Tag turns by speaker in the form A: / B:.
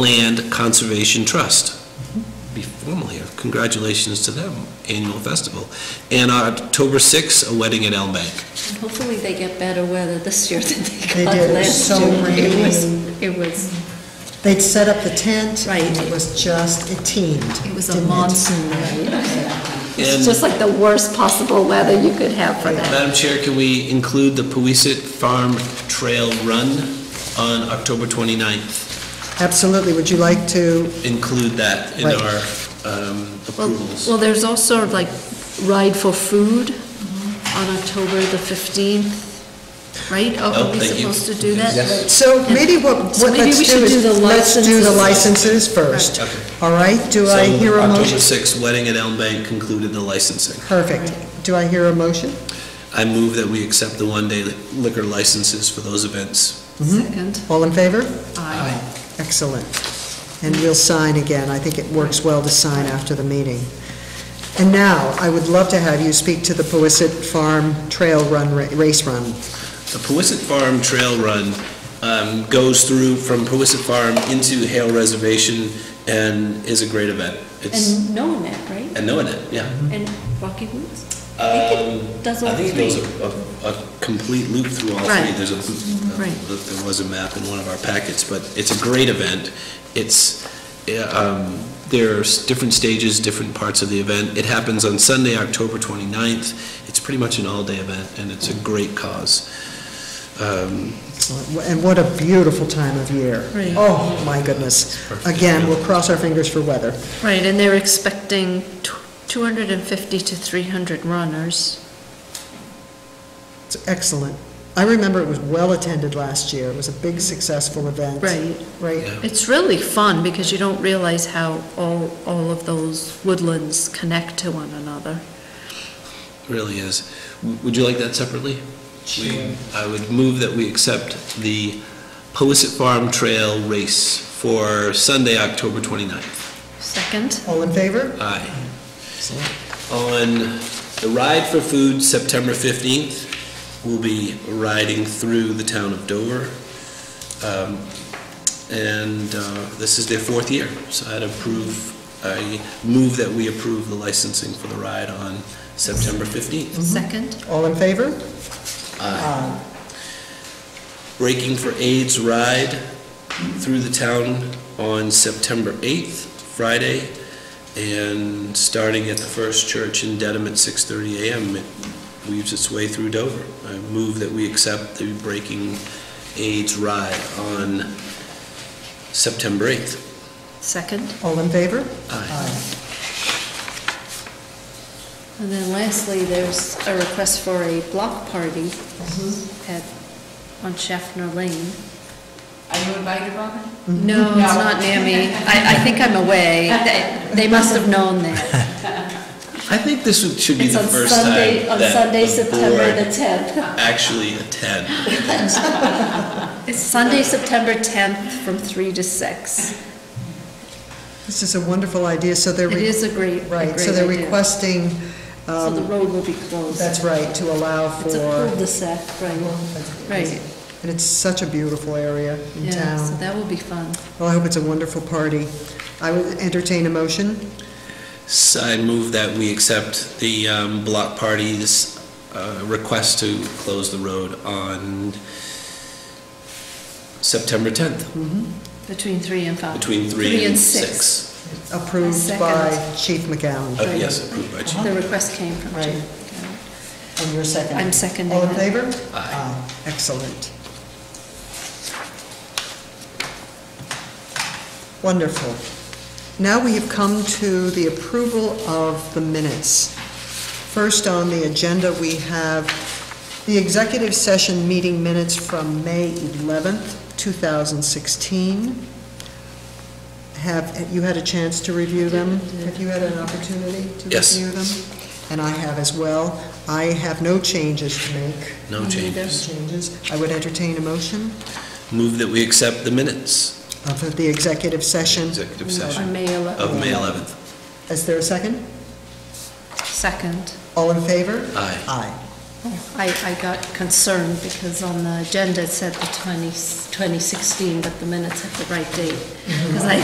A: Land Conservation Trust. Be formal here. Congratulations to them, annual festival. And on October 6th, a wedding at Elm Bank.
B: And Hopefully they get better weather this year than
C: They
B: they got
C: did. It was
B: last
C: so
B: year.
C: rainy.
B: It was, it was,
C: They'd set up the tent.
B: Right.
C: and It was just, it teemed.
B: it was a
C: didn't it?
B: monsoon rain. It's
A: And
B: just like the worst possible weather you could have for that.
A: Madam Chair, can we include the Poisey Farm Trail Run on October 29th?
C: Absolutely. Would you like to,
A: Include that in
C: Right.
A: our um,
B: Well,
A: approvals.
B: well, there's also like Ride for Food on October the 15th, right? Oh,
A: Oh,
B: Are we
A: thank you.
B: supposed to do that?
A: Yes.
C: so maybe what,
B: So
C: what
B: maybe we
C: let's do
B: should do
C: is,
B: the
C: let's do the
B: licenses.
C: licenses first.
A: Right. Okay.
C: All right? Do I
A: So,
C: hear a
A: October
C: motion?
A: 6th, wedding at Elm Bank concluded the licensing.
C: Perfect. Do I hear a motion?
A: I move that we accept the one-day liquor licenses for those events.
C: Mm-hmm.
B: Second.
C: All in favor?
B: Aye.
C: Excellent. And we'll sign again. I think it works well to sign after the meeting. And now, I would love to have you speak to the Poisey Farm Trail Run, ra- Race Run.
A: The Poisey Farm Trail Run um, goes through from Poisey Farm into Hale Reservation and is a great event. It's,
B: And knowing that, right?
A: and knowing it, yeah.
B: And Rocky Woods?
A: Um,
B: does
A: I
B: all
A: think it goes
B: three.
A: a- a, a complete loop through all three.
B: Right.
A: There's a,
B: Right.
A: there was a map in one of our packets, but it's a great event. It's, yeah, um, there's different stages, different parts of the event. It happens on Sunday, October 29th. It's pretty much an all-day event, and it's a great cause. Um,
C: Excellent. And what a beautiful time of year.
B: Right.
C: Oh, my goodness. Again, we'll cross our fingers for weather.
B: Right, and they're expecting tw- 250 to 300 runners.
C: It's excellent. I remember it was well-attended last year. It was a big, successful event. Right?
A: Yeah.
B: It's really fun because you don't realize how all, all of those woodlands connect to one another.
A: It Really is. W- Would you like that separately? We- I would move that we accept the Poisey Farm Trail Race for Sunday, October 29th.
B: Second?
C: All in favor?
A: Aye. On the Ride for Food, September 15th, we'll be riding through the town of Dover. Um, And uh, this is their fourth year, so I'd approve, I move that we approve the licensing for the ride on September 15th.
B: Second?
C: All in favor?
A: Breaking for AIDS ride through the town on September 8th, Friday, and starting at the First Church in Dedham at 6:30 a.m. It weaves its way through Dover. I move that we accept the Breaking AIDS ride on September 8th.
B: Second?
C: All in favor?
A: Aye.
B: And then lastly, there's a request for a block party at, on Schaffner Lane.
D: Are you invited, Robin?
B: No, it's not near me. I, I think I'm away. They- They must have known that.
A: I think this would- should be
B: It's
A: the
B: on
A: first time
B: Sunday, on
A: that
B: Sunday,
A: the
B: September the
A: board
B: 10th.
A: actually attend.
B: It's Sunday, September 10th, from 3 to 6.
C: This is a wonderful idea, so they're.
B: It
C: re-
B: is a great, a
C: Right, so
B: great
C: they're
B: idea.
C: requesting,
B: So the
C: um,
B: road will be closed.
C: that's right, to allow
B: It's a
C: for.
B: cul-de-sac, right? Right,
C: And it's such a beautiful area in
B: yeah, so
C: town.
B: that will be fun.
C: Well, I hope it's a wonderful party. I would entertain a motion.
A: So I move that we accept the um, block party's uh, request to close the road on September 10th,
B: Between three and five.
A: between 3 and 6.
C: approved
B: second.
C: by Chief McGowan.
A: Oh, yes, approved by
B: The request came from
C: Right.
B: Jim.
C: And you're second.
B: I'm seconding
C: All in
B: it.
C: favor?
A: Aye.
C: Oh, Excellent. Wonderful. Now we have come to the approval of the minutes. First on the agenda, we have the executive session meeting minutes from May 11th, 2016. Have, you had a chance to review them? Have you had an opportunity to
A: Yes.
C: review them? And I have as well. I have no changes to make.
A: No changes.
C: Changes. I would entertain a motion
A: Move that we accept the minutes,
C: of the executive session.
A: executive
B: On
A: session
B: May 11th.
A: of May 11th.
C: Is there a second?
B: Second.
C: All in favor?
A: Aye.
C: Aye.
B: I, I got concerned because on the agenda it said the 20 2016, but the minutes had the right date. Because I